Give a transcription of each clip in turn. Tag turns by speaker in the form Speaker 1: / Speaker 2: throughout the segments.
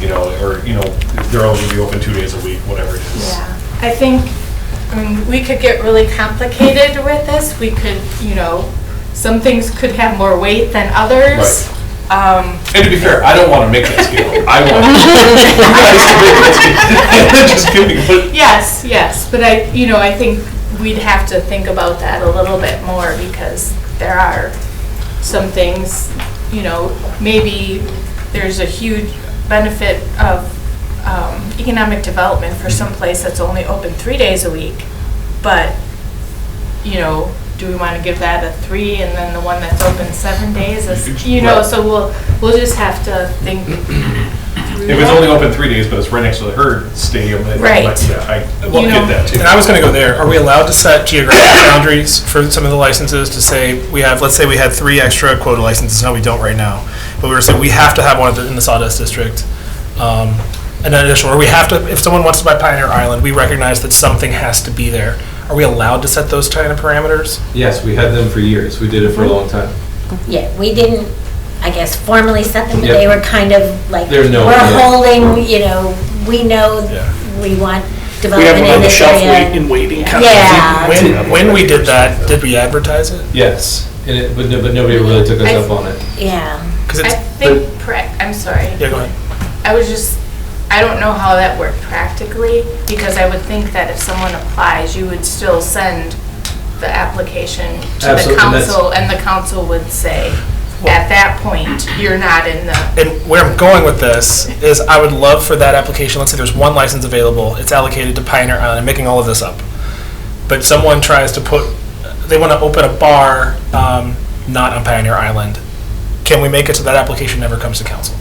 Speaker 1: you know, or, you know, they're only be open two days a week, whatever it is.
Speaker 2: Yeah, I think, I mean, we could get really complicated with this. We could, you know, some things could have more weight than others. Um,
Speaker 1: And to be fair, I don't want to make that scale. I want. I'm Just kidding, but
Speaker 2: Yes, yes, but I, you know, I think we'd have to think about that a little bit more because there are some things, you know, maybe there's a huge benefit of um, economic development for some
Speaker 1: Mm-hmm.
Speaker 2: place that's only open three days a week, but, you know, do we want to give that a three and then the one that's open seven days is, you know,
Speaker 1: Right.
Speaker 2: so we'll, we'll just have to think through
Speaker 1: if it's
Speaker 2: that.
Speaker 1: only open three days, but it's right next to the herd stadium, then,
Speaker 2: Right.
Speaker 1: like, yeah, I, I will
Speaker 2: You
Speaker 1: get
Speaker 2: know.
Speaker 1: that too.
Speaker 3: And I was going to go there. Are we allowed to set geographic boundaries for some of the licenses to say, we have, let's say we had three extra quota licenses, no, we don't right now. But we were saying, we have to have one in the Sawdust District. um, And an additional, or we have to, if someone wants to buy Pioneer Island, we recognize that something has to be there. Are we allowed to set those kind of parameters?
Speaker 4: Yes, we had them for years. We did it for a long time.
Speaker 5: Yeah, we didn't, I guess, formally set them, but
Speaker 4: Yeah.
Speaker 5: they were kind of like,
Speaker 4: They're
Speaker 5: we're
Speaker 4: known, yeah.
Speaker 5: holding, you know, we know
Speaker 3: Yeah.
Speaker 5: we want
Speaker 6: We have
Speaker 5: development
Speaker 6: one on
Speaker 5: in
Speaker 6: the
Speaker 5: this
Speaker 6: shelf wait
Speaker 5: area.
Speaker 6: and waiting kind of.
Speaker 5: Yeah.
Speaker 3: When, when we did that, did we advertise it?
Speaker 4: Yes, and it, but no- but nobody really took us
Speaker 2: I-
Speaker 4: up on it.
Speaker 5: Yeah,
Speaker 3: Because
Speaker 2: I
Speaker 3: it's,
Speaker 2: think, prac- I'm sorry.
Speaker 3: yeah, go ahead.
Speaker 2: I was just, I don't know how that worked practically, because I would think that if someone applies, you would still send the application to the
Speaker 4: Absolutely, and that's-
Speaker 2: council, and the council would say, at that point, you're not in the,
Speaker 3: And where I'm going with this is I would love for that application, let's say there's one license available, it's allocated to Pioneer Island, I'm making all of this up. But someone tries to put, they want to open a bar, um, not on Pioneer Island. Can we make it so that application never comes to council?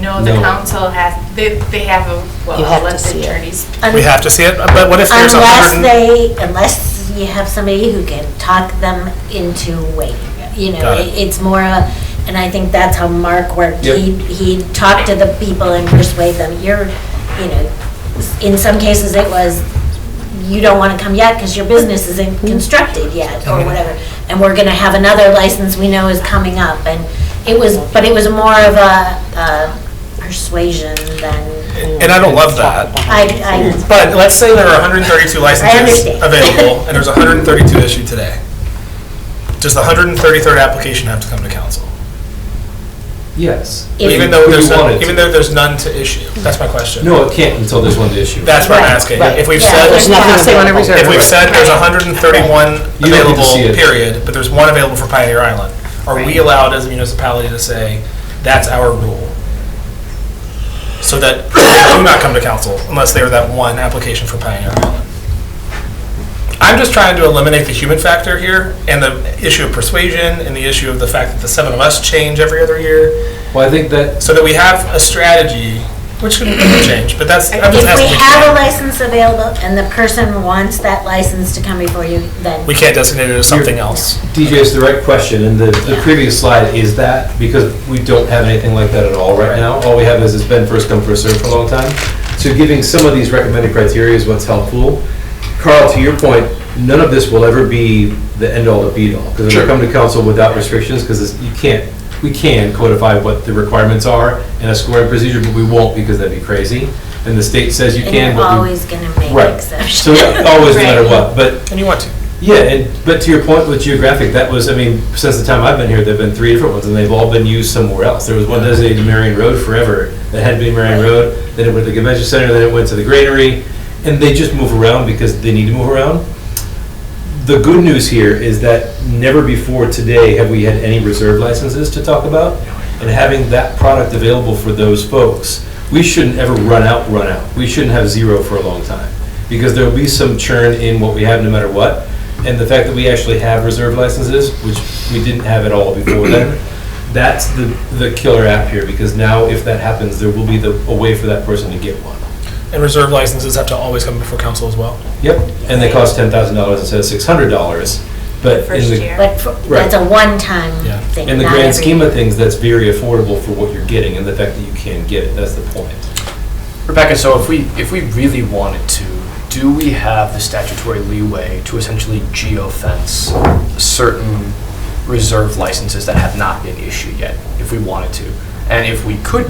Speaker 2: no, the
Speaker 4: No.
Speaker 2: council has, they, they have a,
Speaker 7: You have
Speaker 2: well,
Speaker 7: to
Speaker 2: let the
Speaker 7: see it.
Speaker 2: attorneys.
Speaker 3: We have to see it, but what if there's a
Speaker 5: unless
Speaker 3: hundred and-
Speaker 5: they, unless you have somebody who can talk them into waiting. You know,
Speaker 3: Got it.
Speaker 5: it- it's more a, and I think that's how Mark worked.
Speaker 4: Yep.
Speaker 5: He, he talked to the people and persuade them, you're, you know, in some cases it was, you don't want to come yet because your business isn't constructed yet, or whatever. And we're going to have another license we know is coming up, and it was, but it was more of a uh, persuasion than,
Speaker 3: and I don't love that.
Speaker 5: I, I,
Speaker 3: But let's say there are 132
Speaker 5: I
Speaker 3: licenses
Speaker 5: understand.
Speaker 3: available, and there's 132 issued today. Does the 133rd application have to come to council?
Speaker 4: Yes.
Speaker 5: If-
Speaker 3: Even though
Speaker 4: We
Speaker 3: there's,
Speaker 4: wanted
Speaker 3: none-
Speaker 4: to.
Speaker 3: even though there's none to issue? That's my question.
Speaker 4: No, it can't until there's one to issue.
Speaker 3: That's what I'm asking.
Speaker 7: Right.
Speaker 3: If we've
Speaker 5: Yeah,
Speaker 3: said,
Speaker 5: there's
Speaker 7: There's nothing
Speaker 5: Right.
Speaker 7: available.
Speaker 5: If
Speaker 3: if we've said there's 131
Speaker 4: You don't get to
Speaker 3: available,
Speaker 4: see it.
Speaker 3: period, but there's one available for Pioneer Island, are we allowed as a municipality to say, that's our rule? So that they do not come to council unless they are that one application for Pioneer Island. I'm just trying to eliminate the human factor here and the issue of persuasion and the issue of the fact that the seven of us change every other year,
Speaker 4: Well, I think that,
Speaker 3: so that we have a strategy, which could change, but that's, I'm just
Speaker 5: If
Speaker 3: asking.
Speaker 5: we have a license available and the person wants that license to come before you, then
Speaker 3: We can't designate it as something else.
Speaker 4: DJ is the right question, and the, the previous slide is that, because we don't have anything like that at all right now. All we have is it's been first come, first served for a long time. So giving some of these recommended criteria is what's helpful. Carl, to your point, none of this will ever be the end-all, the be-all, because it'll come to council without restrictions, because you can't, we can codify what the requirements are in a scoring procedure, but we won't, because that'd be crazy. And the state says you
Speaker 5: and
Speaker 4: can,
Speaker 5: you're
Speaker 4: but we.
Speaker 5: always going to make
Speaker 4: Right. So
Speaker 5: exceptions.
Speaker 4: always, no matter what, but
Speaker 3: And you want to.
Speaker 4: yeah, and, but to your point with geographic, that was, I mean, since the time I've been here, there've been three different ones, and they've all been used somewhere else. There was one designated to Marion Road forever, that had been Marion Road, then it went to the convention center, then it went to the granary, and they just move around because they need to move around. The good news here is that never before today have we had any reserve licenses to talk about, and having that product available for those folks, we shouldn't ever run out, run out. We shouldn't have zero for a long time, because there'll be some churn in what we have no matter what. And the fact that we actually have reserve licenses, which we didn't have at all before then, that's the, the killer app here, because now if that happens, there will be the, a way for that person to get one.
Speaker 3: And reserve licenses have to always come before council as well.
Speaker 4: Yep, and they cost ten thousand dollars instead of six hundred dollars, but in the.
Speaker 2: First year.
Speaker 5: But for-
Speaker 4: Right.
Speaker 5: that's a one-time
Speaker 3: Yeah.
Speaker 5: thing.
Speaker 4: In the
Speaker 5: not
Speaker 4: grand
Speaker 5: every-
Speaker 4: scheme of things, that's very affordable for what you're getting and the fact that you can get it, that's the point.
Speaker 6: Rebecca, so if we, if we really wanted to, do we have the statutory leeway to essentially geofence certain reserve licenses that have not been issued yet, if we wanted to? And if we could